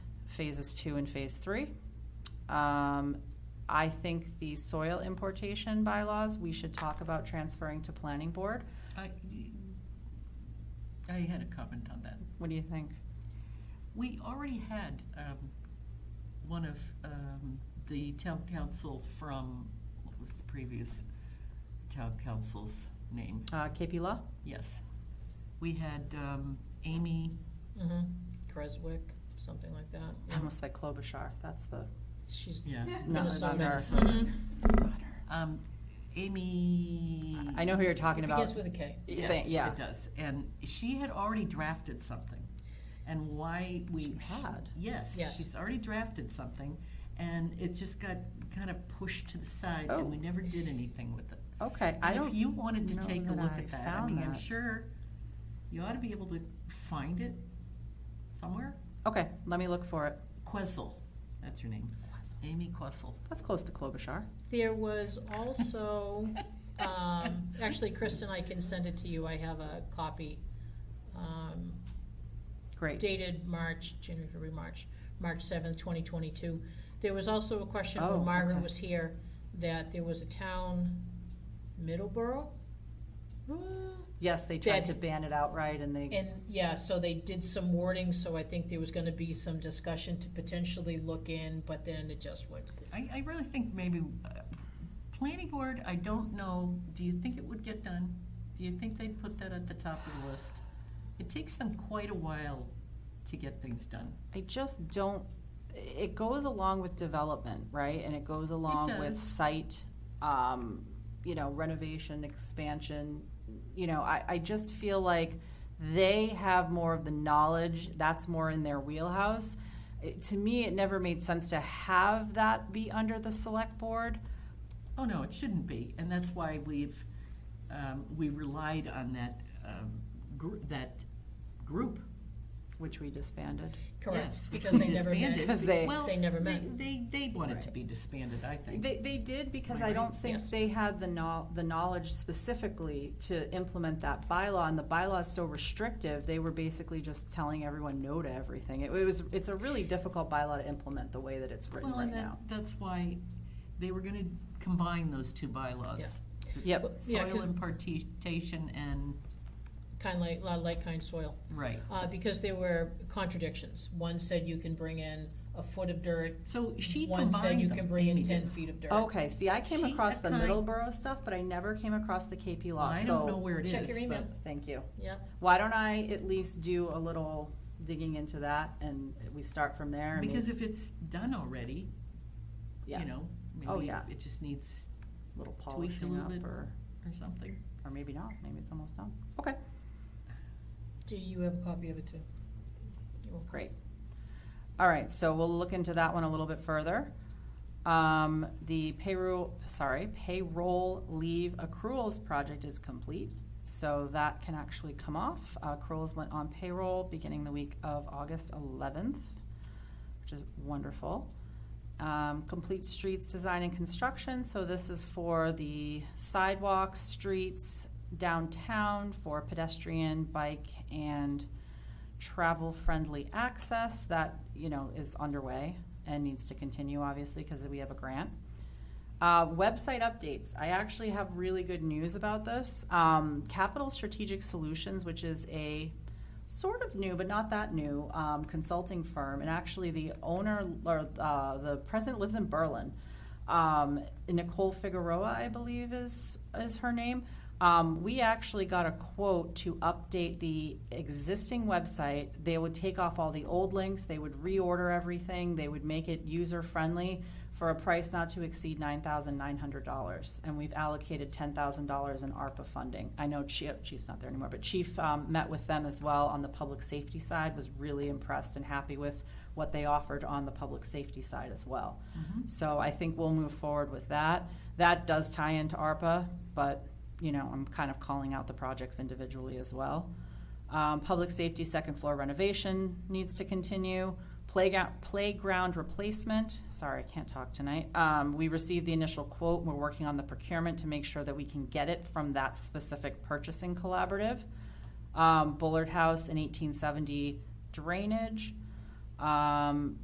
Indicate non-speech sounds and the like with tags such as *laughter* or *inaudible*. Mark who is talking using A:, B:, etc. A: phases two and phase three. Um, I think the soil importation bylaws, we should talk about transferring to planning board.
B: I, I had a comment on that.
A: What do you think?
B: We already had, um, one of, um, the town council from, what was the previous town council's name?
A: Uh, KP Law?
B: Yes. We had, um, Amy,
C: Mm-hmm. Creswick, something like that.
A: I almost said Klobuchar, that's the.
C: She's
B: yeah.
A: No, it's
C: Minnesota.
A: Minnesota.
C: Mm-hmm.
A: Mm-hmm.
B: Um, Amy.
A: I know who you're talking
C: It
A: about.
C: begins with a K.
A: Yeah,
B: Yes,
A: Yeah,
B: it does. And she had already drafted something. And why we.
A: She had?
B: Yes,
C: Yes.
B: she's already drafted something, and it just got kind of pushed to the side,
A: Oh.
B: and we never did anything with it.
A: okay, I
B: And
A: don't.
B: If you wanted to
A: know
B: take a
A: that
B: look
A: I
B: at that, I
A: found
B: mean, I'm
A: that.
B: sure you ought to be able to find it somewhere.
A: Okay, let me look for it.
B: Questle, that's her name. Amy Questle.
A: That's close to Klobuchar.
C: There was also,
B: *laughs*
C: um, actually, Kristen, I can send it to you. I have a copy. Um,
A: Great.
C: dated March, January, February, March, March seventh, twenty twenty-two. There was also a question
A: Oh,
C: when Margaret
A: okay.
C: was here, that there was a town, Middleborough?
A: Yes, they tried to
C: That-
A: ban it outright and they,
C: And, yeah, so they did some wording, so I think there was gonna be some discussion to potentially look in, but then it just went.
B: I, I really think maybe, uh, planning board, I don't know, do you think it would get done? Do you think they'd put that at the top of the list? It takes them quite a while to get things done.
A: I just don't, it goes along with development, right? And it goes along with
B: does.
A: site, um, you know, renovation, expansion. You know, I, I just feel like they have more of the knowledge, that's more in their wheelhouse. It- To me, it never made sense to have that be under the select board.
B: Oh, no, it shouldn't be, and that's why we've, um, we relied on that, um, gr- that group.
A: Which we disbanded.
C: Correct,
B: Yes, which
C: because
B: we
C: they never
B: disbanded.
C: met.
A: Because they-
B: Well,
C: They never met.
B: They, they wanted to
C: Right.
B: be disbanded, I think.
A: They, they did because I
B: Right,
A: don't think
C: yes.
A: they had the know, the knowledge specifically to implement that bylaw, and the bylaw is so restrictive, they were basically just telling everyone no to everything. It was, it's a really difficult bylaw to implement the way that it's written
B: Well,
A: right
B: and that,
A: now.
B: that's why they were gonna combine those two bylaws.
A: Yep,
C: Yeah,
B: Soil
C: 'cause
B: impartation and,
C: kind of like, like kind soil.
B: right.
C: uh, because there were contradictions. One said you can bring in a foot of dirt.
B: So she
C: One
B: combined
C: said you can
B: them.
C: bring in
B: Amy
C: ten
B: did.
C: feet of dirt.
A: okay, see, I came
B: She
A: across
B: had
A: the
B: kind-
A: Middleborough stuff, but I never came across the KP law,
B: I don't know
A: so,
B: where it is.
C: Check your
B: but-
C: email.
A: thank you.
C: Yeah,
A: Why don't I at least do a little digging into that, and we start from there? I mean,
B: Because if it's done already,
A: yeah,
B: you know,
A: Oh,
B: maybe
A: yeah.
B: it just needs
A: Little
B: tweaked a
A: polishing
B: little
A: up,
B: bit
A: or,
B: or something.
A: or maybe not, maybe it's almost done. Okay.
C: do you have a copy of it too? You're welcome.
A: Great. All right, so we'll look into that one a little bit further. Um, the payroll, sorry, payroll leave accruals project is complete, so that can actually come off. Uh, Accruals went on payroll beginning the week of August eleventh, which is wonderful. Um, complete streets design and construction, so this is for the sidewalks, streets, downtown, for pedestrian, bike, and travel-friendly access that, you know, is underway and needs to continue, obviously, because we have a grant. Uh, website updates. I actually have really good news about this. Um, Capital Strategic Solutions, which is a sort of new, but not that new, um, consulting firm, and actually the owner, or, uh, the president lives in Berlin. Um, Nicole Figueroa, I believe, is, is her name. Um, we actually got a quote to update the existing website. They would take off all the old links, they would reorder everything, they would make it user-friendly for a price not to exceed nine thousand nine hundred dollars, and we've allocated ten thousand dollars in ARPA funding. I know Chief, Chief's not there anymore, but Chief um, met with them as well on the public safety side, was really impressed and happy with what they offered on the public safety side as well. So I think we'll move forward with that. That does tie into ARPA, but, you know, I'm kind of calling out the projects individually as well. Um, public safety second floor renovation needs to continue. Playground, playground replacement, sorry, I can't talk tonight. Um, we received the initial quote, we're working on the procurement to make sure that we can get it from that specific purchasing collaborative. Um, Bullard House and eighteen seventy drainage. Um,